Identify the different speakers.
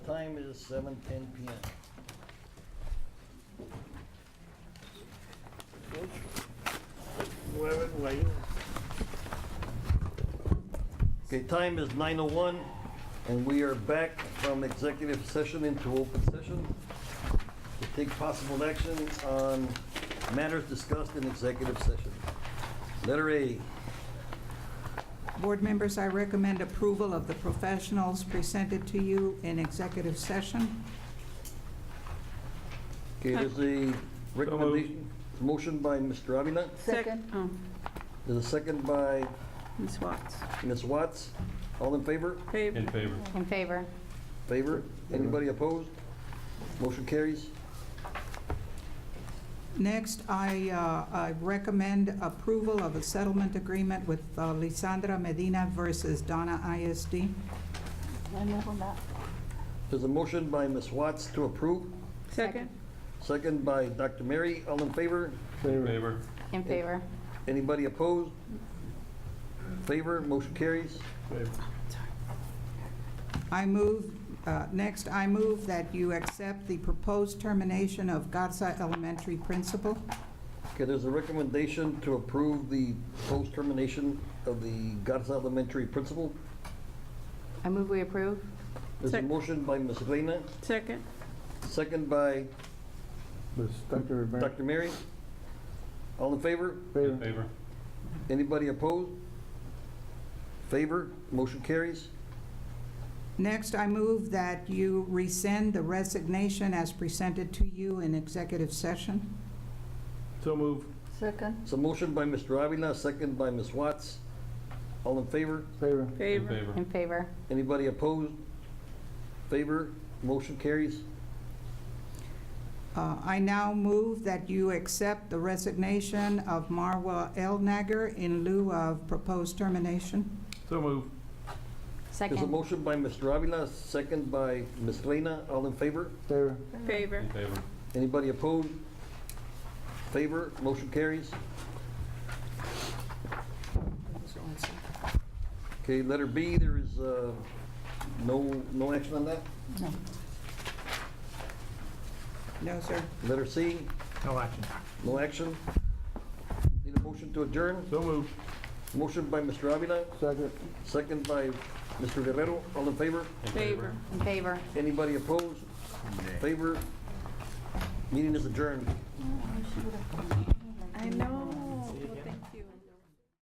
Speaker 1: time is seven ten P M. Okay, time is nine oh one, and we are back from executive session into open session to take possible action on matters discussed in executive session. Letter A,
Speaker 2: Board members, I recommend approval of the professionals presented to you in executive session.
Speaker 1: okay, there's a recommendation, motion by Mr. Avila,
Speaker 3: Second. Oh,
Speaker 1: there's a second by
Speaker 3: Ms. Watts.
Speaker 1: Ms. Watts. All in favor?
Speaker 3: Favor.
Speaker 4: In favor.
Speaker 3: Oh, In favor.
Speaker 1: Favor? Anybody opposed? Motion carries.
Speaker 2: Next, I, uh, I recommend approval of a settlement agreement with uh, Lisandra Medina versus Donna ISD.
Speaker 3: I move on that.
Speaker 1: There's a motion by Ms. Watts to approve,
Speaker 3: Second.
Speaker 1: second by Dr. Mary. All in favor?
Speaker 4: Favor.
Speaker 3: In favor.
Speaker 1: Anybody opposed? Favor? Motion carries.
Speaker 2: I move, uh, next, I move that you accept the proposed termination of Garza Elementary principal.
Speaker 1: Okay, there's a recommendation to approve the post-termination of the Garza Elementary principal.
Speaker 3: I move we approve.
Speaker 1: There's a
Speaker 3: Sec-
Speaker 1: motion by Ms. Reyna,
Speaker 3: Second.
Speaker 1: second by
Speaker 5: Ms. Dr. Mary.
Speaker 1: Dr. Mary. All in favor?
Speaker 4: In
Speaker 5: Favor.
Speaker 4: favor.
Speaker 1: Anybody opposed? Favor? Motion carries.
Speaker 2: Next, I move that you rescind the resignation as presented to you in executive session.
Speaker 5: So move.
Speaker 3: Second.
Speaker 1: So motion by Mr. Avila, second by Ms. Watts. All in favor?
Speaker 5: Favor.
Speaker 4: In favor.
Speaker 3: In favor.
Speaker 1: Anybody opposed? Favor? Motion carries.
Speaker 2: Uh, I now move that you accept the resignation of Marwa Elnager in lieu of proposed termination.
Speaker 5: So move.
Speaker 1: There's a
Speaker 3: Second.
Speaker 1: motion by Mr. Avila, second by Ms. Reyna. All in favor?
Speaker 5: Favor.
Speaker 3: Favor.
Speaker 4: In favor.
Speaker 1: Anybody opposed? Favor? Motion carries. Okay, letter B, there is uh, no, no action on that.
Speaker 2: No, sir.
Speaker 1: Letter C,
Speaker 5: No action.
Speaker 1: no action. Need a motion to adjourn?
Speaker 5: So move.
Speaker 1: Motion by Mr. Avila,
Speaker 5: Second.
Speaker 1: Second by Mr. Guerrero, all in favor?
Speaker 4: In
Speaker 3: In favor.
Speaker 1: Anybody opposed? Favor? Meeting is adjourned.
Speaker 3: I know.